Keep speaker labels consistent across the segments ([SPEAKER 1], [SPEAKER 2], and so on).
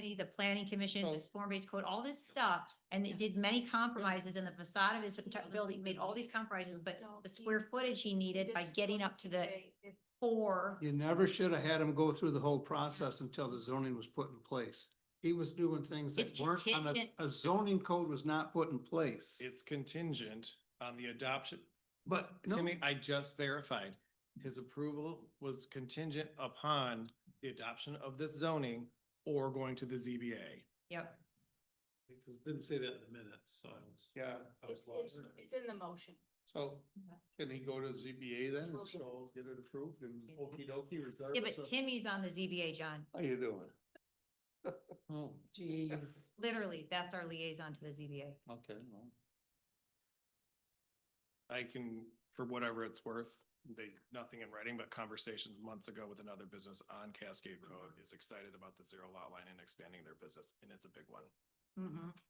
[SPEAKER 1] committee, the planning commission, the
[SPEAKER 2] Right.
[SPEAKER 1] form-based code, all this stuff. And it did many compromises and the facade of his entire building, made all these compromises, but the square footage he needed by getting up to the four.
[SPEAKER 3] You never should have had him go through the whole process until the zoning was put in place. He was doing things that
[SPEAKER 1] It's
[SPEAKER 3] weren't, on a,
[SPEAKER 1] contingent.
[SPEAKER 3] a zoning code was not put in place.
[SPEAKER 4] It's contingent on the adoption.
[SPEAKER 3] But, no,
[SPEAKER 4] Timmy, I just verified, his approval was contingent upon the adoption of this zoning or going to the ZBA.
[SPEAKER 1] Yep.
[SPEAKER 5] Because it didn't say that in the minutes, so I was.
[SPEAKER 6] Yeah,
[SPEAKER 5] I was
[SPEAKER 2] It's,
[SPEAKER 5] lost.
[SPEAKER 2] in- it's in the motion.
[SPEAKER 6] so can he go to ZBA then and
[SPEAKER 2] Okay.
[SPEAKER 6] so get it approved and okey dokey regardless?
[SPEAKER 1] Yeah, but
[SPEAKER 6] of-
[SPEAKER 1] Timmy's on the ZBA, John.
[SPEAKER 6] How you doing? Oh,
[SPEAKER 2] Jeez.
[SPEAKER 1] Literally, that's our liaison to the ZBA.
[SPEAKER 6] okay, well,
[SPEAKER 4] I can, for whatever it's worth, they, nothing in writing, but conversations months ago with another business on Cascade Road is excited about the zero lot line and expanding their business, and it's a big one.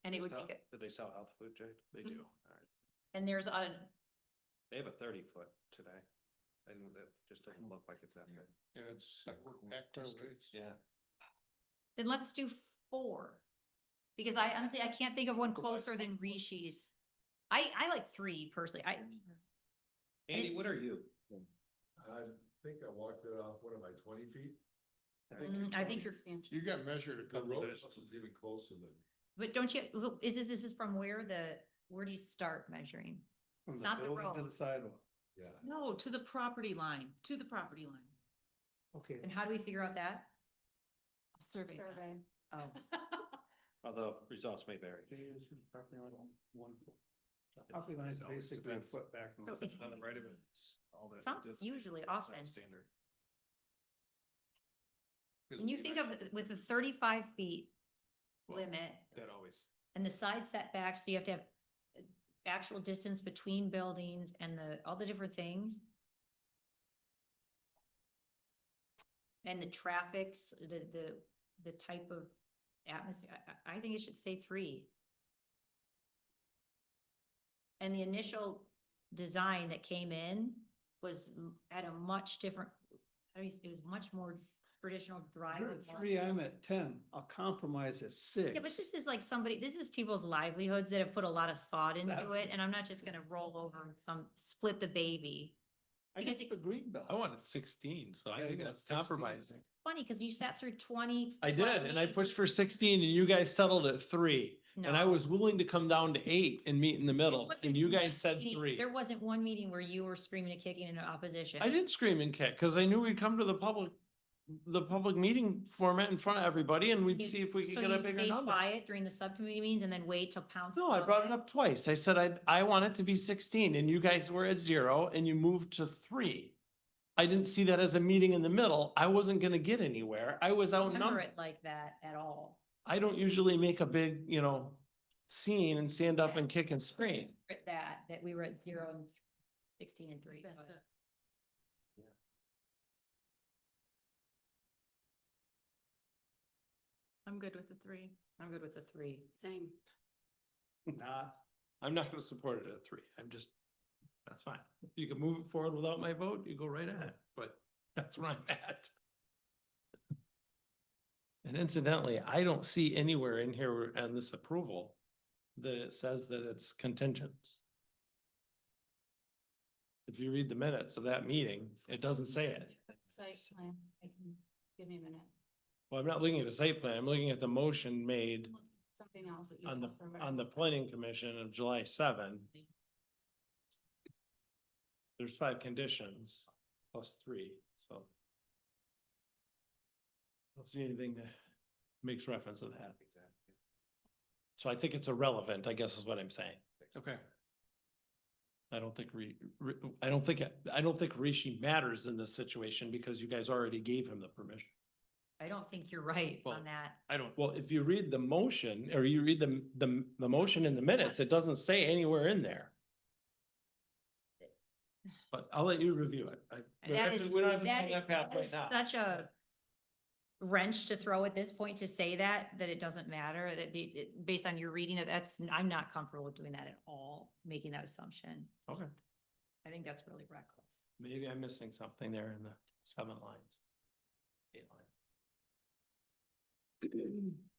[SPEAKER 1] And it would make it, Mm-hmm.
[SPEAKER 7] Did they sell health food, Jay?
[SPEAKER 4] They do.
[SPEAKER 7] Alright,
[SPEAKER 1] and there's a,
[SPEAKER 7] they have a thirty foot today, and it just doesn't look like it's that big.
[SPEAKER 6] yeah, it's back to ways.
[SPEAKER 7] Yeah.
[SPEAKER 1] then let's do four. Because I honestly, I can't think of one closer than Rishi's. I, I like three personally. I,
[SPEAKER 7] Andy,
[SPEAKER 1] It's-
[SPEAKER 7] what are you?
[SPEAKER 5] I think I walked it off, what am I, twenty feet?
[SPEAKER 1] Mm, I think you're,
[SPEAKER 6] You got measured a
[SPEAKER 5] The
[SPEAKER 6] couple
[SPEAKER 5] road
[SPEAKER 6] days.
[SPEAKER 5] was even closer than.
[SPEAKER 1] but don't you, who- is this, this is from where the, where do you start measuring?
[SPEAKER 6] From
[SPEAKER 1] It's not the
[SPEAKER 6] building To
[SPEAKER 1] road.
[SPEAKER 6] the sidewalk.
[SPEAKER 5] Yeah.
[SPEAKER 8] No, to the property line, to the property line.
[SPEAKER 6] Okay.
[SPEAKER 1] And how do we figure out that?
[SPEAKER 8] Survey. map.
[SPEAKER 2] Survey.
[SPEAKER 8] Oh,
[SPEAKER 7] Although results may vary.
[SPEAKER 6] Property line, one foot. Property line is
[SPEAKER 4] It always
[SPEAKER 6] basically a
[SPEAKER 4] depends.
[SPEAKER 6] foot back. from the
[SPEAKER 1] So
[SPEAKER 6] side.
[SPEAKER 1] if-
[SPEAKER 4] On the right of it, it's all that.
[SPEAKER 1] Some-
[SPEAKER 4] it's-
[SPEAKER 1] usually,
[SPEAKER 4] it's not
[SPEAKER 1] often.
[SPEAKER 4] Standard.
[SPEAKER 1] When you think of, it with the thirty-five feet
[SPEAKER 4] Well,
[SPEAKER 1] limit
[SPEAKER 4] That always.
[SPEAKER 1] and the side setbacks, so you have to have uh, actual distance between buildings and the, all the different things. And the traffics, the, the, the type of atmosphere, I, I, I think it should say three. And the initial design that came in was m- at a much different, I mean, it was much more traditional drive.
[SPEAKER 3] you're
[SPEAKER 1] and
[SPEAKER 3] at
[SPEAKER 1] walk.
[SPEAKER 3] three, I'm at ten, I'll compromise at six.
[SPEAKER 1] Yeah, but this is like somebody, this is people's livelihoods that have put a lot of thought into it, and I'm not just gonna roll over and some, split the baby.
[SPEAKER 9] I
[SPEAKER 1] Because
[SPEAKER 9] just
[SPEAKER 1] it-
[SPEAKER 9] agreed, though. I wanted sixteen, so I
[SPEAKER 3] Yeah,
[SPEAKER 9] think
[SPEAKER 3] you got
[SPEAKER 9] that's
[SPEAKER 3] 16.
[SPEAKER 9] compromising.
[SPEAKER 1] Funny, cause you sat through twenty.
[SPEAKER 9] I
[SPEAKER 1] plus
[SPEAKER 9] did, and I
[SPEAKER 1] meetings.
[SPEAKER 9] pushed for sixteen and you guys settled at three. And I
[SPEAKER 1] No.
[SPEAKER 9] was willing to come down to eight and meet in the
[SPEAKER 1] There
[SPEAKER 9] middle,
[SPEAKER 1] wasn't
[SPEAKER 9] and you
[SPEAKER 1] one
[SPEAKER 9] guys said
[SPEAKER 1] meeting-
[SPEAKER 9] three.
[SPEAKER 1] There wasn't one meeting where you were screaming and kicking in opposition.
[SPEAKER 9] I did scream and kick, cause I knew we'd come to the public, the public meeting format in front of everybody and we'd
[SPEAKER 1] You-
[SPEAKER 9] see if we could
[SPEAKER 1] So
[SPEAKER 9] get a
[SPEAKER 1] you
[SPEAKER 9] bigger
[SPEAKER 1] stayed
[SPEAKER 9] number.
[SPEAKER 1] quiet during the subcommittee meetings and then wait till pounce.
[SPEAKER 9] No, I brought it up twice. I said I, I want it to be sixteen and you guys were at zero and you moved to three. I didn't see that as a meeting in the middle. I wasn't gonna get anywhere. I was
[SPEAKER 1] Remember
[SPEAKER 9] outnumbered.
[SPEAKER 1] it like that at all.
[SPEAKER 9] I don't usually make a big, you know, scene and stand up and kick and scream.
[SPEAKER 1] At That, that we were at zero and sixteen and three.
[SPEAKER 8] is that
[SPEAKER 1] but-
[SPEAKER 8] the- I'm good with the three.
[SPEAKER 1] I'm good with the three.
[SPEAKER 2] Same.
[SPEAKER 9] Not, I'm not gonna support it at three. I'm just, that's fine. If You can move it forward without my vote, you go right ahead, but that's where I'm at. And incidentally, I don't see anywhere in here and this approval that it says that it's contingent. If you read the minutes of that meeting, it doesn't say it.
[SPEAKER 2] Site plan. I can- Give me a minute.
[SPEAKER 9] Well, I'm not looking at the site plan. I'm looking at the motion made
[SPEAKER 2] Look, Something else that you.
[SPEAKER 9] on the,
[SPEAKER 2] asked for, right?
[SPEAKER 9] on the planning commission of July seven. There's five conditions plus three, so. Don't see anything that makes reference to that. So I think it's irrelevant, I guess is what I'm saying.
[SPEAKER 4] Okay.
[SPEAKER 9] I don't think re, re- I don't think, I don't think Rishi matters in this situation because you guys already gave him the permission.
[SPEAKER 1] I don't think you're right
[SPEAKER 4] Well,
[SPEAKER 1] on that.
[SPEAKER 4] I don't,
[SPEAKER 9] Well, if you read the motion or you read the, the, the motion in the minutes, it doesn't say anywhere in there. But I'll let you review it. I-
[SPEAKER 1] And that
[SPEAKER 9] actually,
[SPEAKER 1] is-
[SPEAKER 9] We don't have to
[SPEAKER 1] that
[SPEAKER 9] take
[SPEAKER 1] is-
[SPEAKER 9] that path
[SPEAKER 1] that
[SPEAKER 9] right
[SPEAKER 1] is
[SPEAKER 9] now.
[SPEAKER 1] Such a wrench to throw at this point to say that, that it doesn't matter, that be, it- based on your reading of that's, I'm not comfortable with doing that at all, making that assumption.
[SPEAKER 9] Okay,
[SPEAKER 1] I think that's really reckless.
[SPEAKER 9] maybe I'm missing something there in the seven lines. Eight lines.